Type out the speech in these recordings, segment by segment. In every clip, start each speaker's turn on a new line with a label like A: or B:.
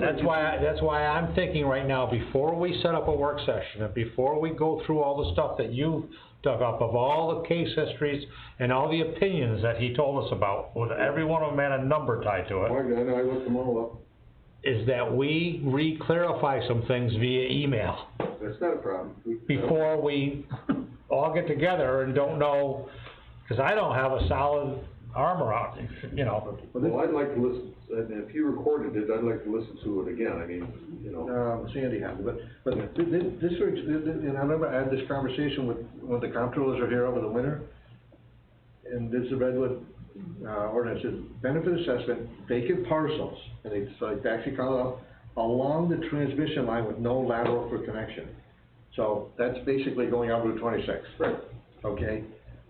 A: That's why, that's why I'm thinking right now, before we set up a work session, and before we go through all the stuff that you dug up of all the case histories and all the opinions that he told us about, with every one of them had a number tied to
B: Oh,
A: it,
B: I got it, I looked them all
A: is that we re-clarify some things via email
B: up, that's not a problem. We-
A: before we all get together and don't know, cause I don't have a solid arm around, you know.
B: Well, I'd like to listen, and if you recorded it, I'd like to listen to it again, I mean, you know.
C: um, Sandy had, but, but thi- thi- this, was- thi- thi- and I remember I had this conversation with, when the comptrollers were here over the winter, and this is Redwood, uh, ordinance, it benefit assessment, vacant parcels, and it's like, they actually call it out, along the transmission line with no lateral for connection. So that's basically going out Route twenty-six.
B: Right.
C: Okay,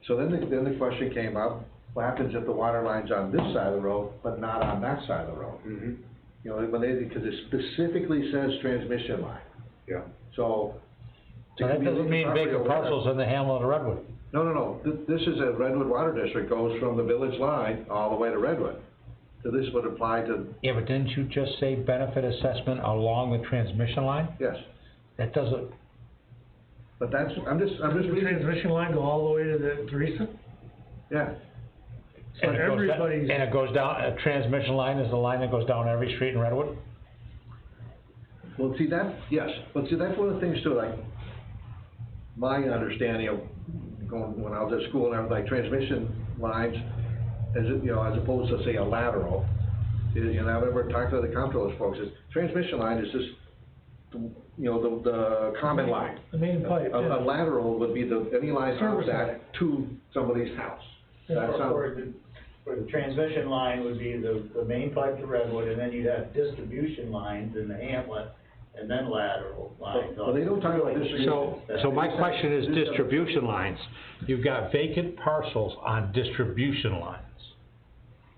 C: so then the, then the question came up, what happens if the water line's on this side of the road, but not on that side of the road?
B: Mm-hmm,
C: You know, when they, because it specifically says transmission line,
B: yeah.
C: so.
A: So that doesn't mean vacant parcels in the hamlet of Redwood.
C: No, no, no, Th- this is a Redwood Water District, goes from the village line all the way to Redwood. So this would apply to,
A: Yeah, but didn't you just say benefit assessment along the transmission line?
C: yes,
A: That doesn't,
C: but that's, I'm just, I'm just
D: Does the
C: reading,
D: transmission line go all the way to the Teresa?
C: yeah,
D: So
A: and it goes down,
D: everybody's,
A: and it goes down, a transmission line is the line that goes down every street in Redwood?
C: well, see, that, yes, but see, that's one of the things too, like, my understanding of going, when I was at school and everything, like, transmission lines, as, it- you know, as opposed to say a lateral, is, you know, I've ever talked to the comptrollers folks, is transmission line is just, the- you know, the, the common line.
D: the main pipe,
C: A, a
D: yeah.
C: lateral would be the, any line
D: Service
C: contact to somebody's house. That
E: Or-
C: sounds,
E: Or the, or the transmission line would be the, the main pipe to Redwood, and then you'd have distribution lines in the hamlet, and then lateral lines.
C: Well, they don't talk about distribution.
A: So, so my question is distribution lines. You've got vacant parcels on distribution lines.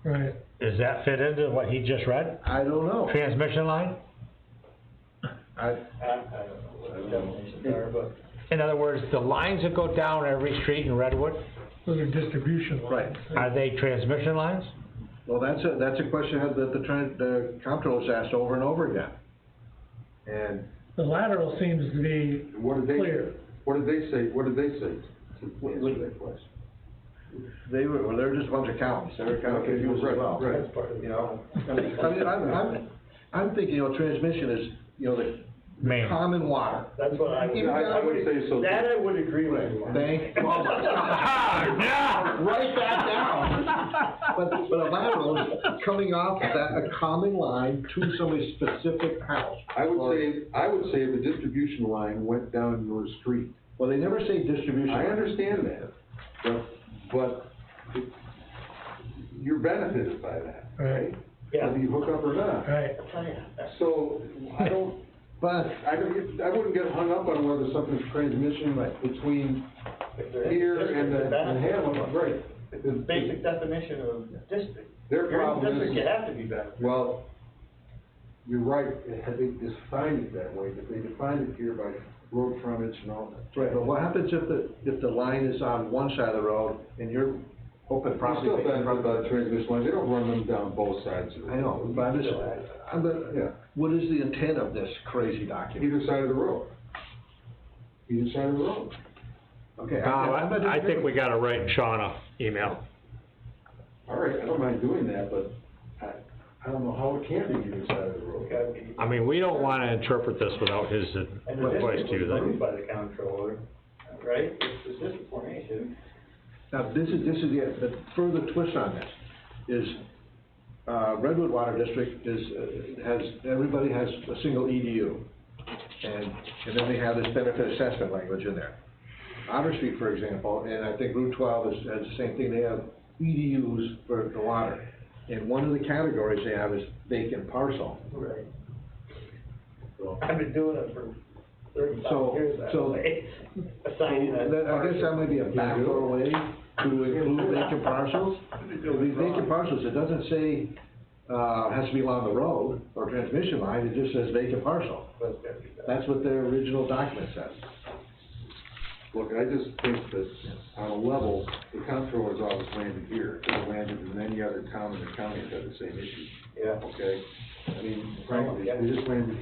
D: right.
A: Does that fit into what he just read?
C: I don't know,
A: Transmission line?
C: I,
E: I, I don't know what the definitions are, but.
A: In other words, the lines that go down every street in Redwood,
D: Those are distribution lines.
A: are they transmission lines?
C: well, that's a, that's a question that the, tran- the comptroller's asked over and over again. And
D: The lateral seems to be
B: And what did they,
D: Clear.
B: what did they say, what did they say to
C: What-
B: answer that question?
C: they were, well, they're just a bunch of accountants, they were kind of
B: Okay,
C: confused as
B: right,
C: well.
B: right.
E: That's part of the-
C: You know, I mean, I mean, I'm, I'm, I'm thinking, you know, transmission is, you know, the
A: Main.
C: common water.
E: That's what I would.
C: Yeah, I- I would
B: say so.
E: That I would agree with you on.
C: Thank, oh my
A: Ah, yeah!
C: Write that down. But, but a lateral is coming off of that, a common line to somebody's specific house.
B: I would say, I would say the distribution line went down your street.
C: Well, they never say distribution.
B: I
C: line.
B: understand that, but, but it- you're benefited by that, right?
E: Yeah.
B: Whether you hook up or not.
D: Right.
B: So, I don't,
C: But,
B: I don't, get- I wouldn't get hung up on whether something's transmission between here and the, and Hamlet, right?
E: The basic definition of district.
B: Their
E: You're in
B: problem is-
E: district, You have to be better.
B: Well, you're right, they defined it that way, but they defined it here by road frontage and all that.
C: right, but what happens if the, if the line is on one side of the road and you're open
B: They're
C: property?
B: still benefit by the transmission line, they don't run them down both sides of the
C: I know, but I'm just, I'm,
B: Yeah.
C: but, what is the intent of this crazy document?
B: Either side of the road. Either side of the road.
C: Okay,
A: Bob,
C: I'm not
A: Uh, I, I think
C: disagreeing.
A: we gotta write Sean a email.
B: All right, I don't mind doing that, but I, I don't know how it can be either side of the road.
A: I mean, we don't wanna interpret this without his
E: And the
A: advice to
E: district was
A: you,
E: approved
A: then.
E: by the comptroller, right? It's the district formation.
C: Now, this is, this is the, the further twist on this, is, uh, Redwood Water District is, uh, has, everybody has a single EDU. And, and then they have this benefit assessment language in there. Otter Street, for example, and I think Route twelve is, has the same thing, they have EDUs for the water. And one of the categories they have is vacant parcel.
E: Right. I've been doing it for
C: So-
E: thirty-five years that
C: so-
E: way, assigning that.
C: That, I guess that might be a backdoor way to include vacant parcels. These vacant parcels, it doesn't say, uh, has to be along the road or transmission line, it just says vacant parcel.
E: part.
C: That's what their original document says.
B: Look, I just think that on a level, the comptroller's office landed here, it landed in many other towns and counties that have the same issue,
E: yeah.
B: okay? I mean, frankly, they just landed